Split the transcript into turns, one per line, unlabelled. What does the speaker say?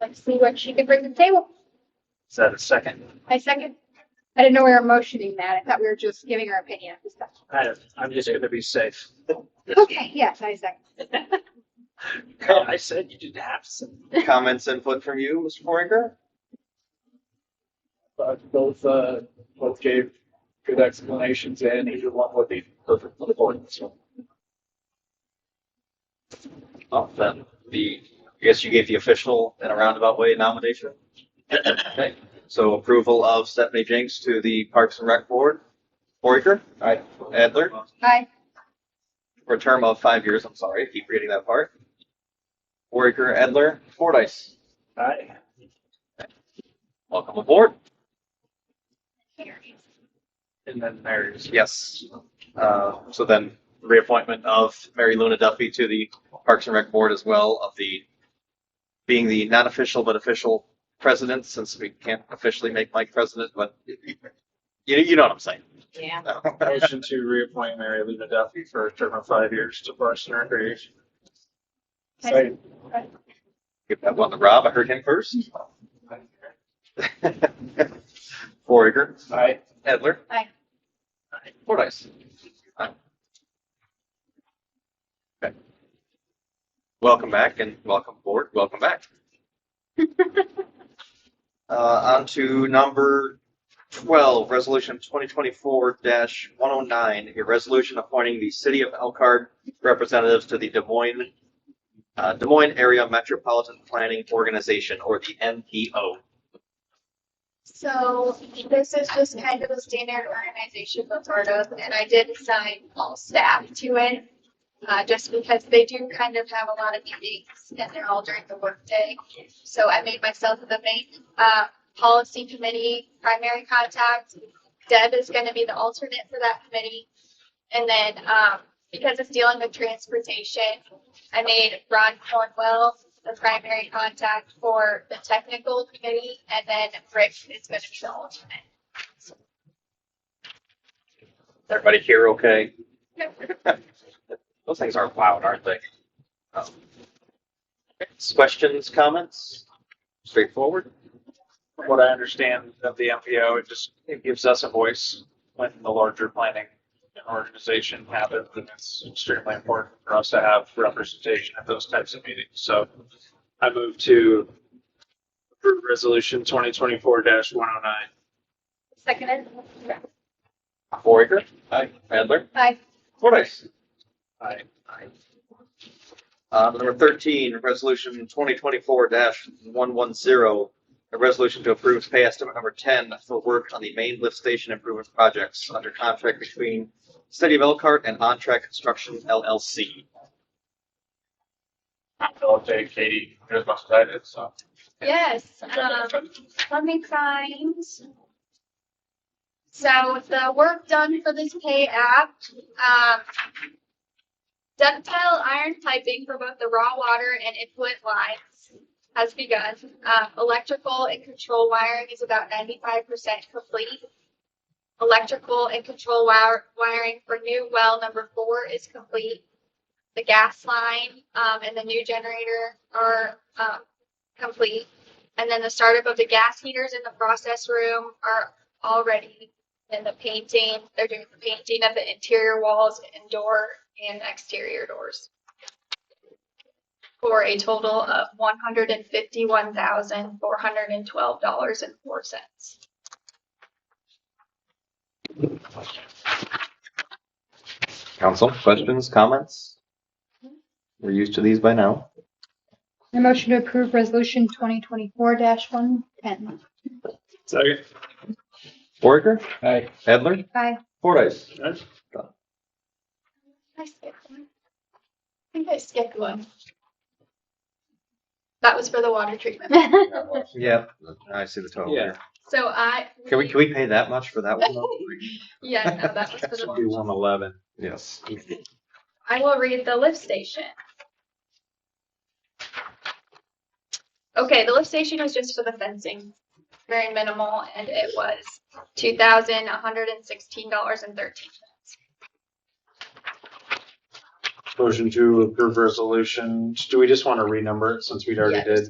Let's see what she could bring to the table.
Is that a second?
I second. I didn't know we were motioning that. I thought we were just giving our opinion.
I, I'm just gonna be safe.
Okay, yes, I second.
I said you didn't have some.
Comments input from you, Mr. Forinker?
Uh, both, uh, both gave good explanations and either one would be perfect for the board, so.
Oh, then the, I guess you gave the official in a roundabout way nomination. Okay, so approval of Stephanie Jenks to the Parks and Rec Board. Foraker,
Aye.
Adler,
Hi.
for a term of five years, I'm sorry, I keep reading that part. Foraker, Adler, Fordice,
Aye.
welcome aboard.
And then there's,
Yes. Uh, so then reappointment of Mary Luna Duffy to the Parks and Rec Board as well of the, being the non-official but official president, since we can't officially make Mike president, but you, you know what I'm saying.
Yeah.
motion to reappoint Mary Lena Duffy for a term of five years to Parks and Recreation.
Second.
Give that one to Rob. I heard him first. Foraker,
Aye.
Edler.
Aye.
Fordice. Aye. Okay. Welcome back and welcome board. Welcome back. Uh, on to number twelve, resolution twenty twenty-four one oh nine, a resolution appointing the city of Elkhart representatives to the Des Moines, uh, Des Moines Area Metropolitan Planning Organization, or the MPO.
So this is just kind of a standard organization that's part of, and I did assign all staff to it. Uh, just because they do kind of have a lot of meetings and they're all during the workday. So I made myself the main, uh, policy committee primary contact. Deb is gonna be the alternate for that committee. And then, um, because it's dealing with transportation, I made Ron Cornwell the primary contact for the technical committee, and then Rick is gonna be the alternate.
Everybody here okay? Those things aren't loud, aren't they? Um, Questions, comments? Straightforward?
From what I understand of the MPO, it just, it gives us a voice when the larger planning organization happens, and it's extremely important for us to have representation at those types of meetings, so I move to approve resolution twenty twenty-four one oh nine.
Seconded.
Foraker? Aye. Adler?
Hi.
Fordice?
Aye.
Uh, number thirteen, resolution twenty twenty-four one one zero, a resolution to approve pay estimate number ten for work on the main lift station improvement projects under contract between City of Elkhart and On Track Construction LLC.
I'll take Katie as much as I did, so.
Yes, um, let me find. So the work done for this pay app, um. Ductile iron piping for both the raw water and input lines has begun. Um, electrical and control wiring is about ninety-five percent complete. Electrical and control wire, wiring for new well number four is complete. The gas line, um, and the new generator are, um, complete. And then the startup of the gas heaters in the process room are already in the painting. They're doing the painting of the interior walls and door and exterior doors. For a total of one hundred and fifty-one thousand, four hundred and twelve dollars and four cents.
Council, questions, comments? We're used to these by now.
I motion to approve resolution twenty twenty-four one ten.
Second.
Foraker,
Aye.
Edler,
Hi.
Fordice.
I skipped one. I think I skipped one. That was for the water treatment.
Yeah, I see the total here.
So I.
Can we, can we pay that much for that one? though?
Yeah, no, that was for the water.
one eleven. Yes.
I will read the lift station. Okay, the lift station was just for the fencing, very minimal, and it was two thousand one hundred and sixteen dollars and thirteen cents.
Motion to approve resolution, do we just want to renumber it since we already
Yes.
did?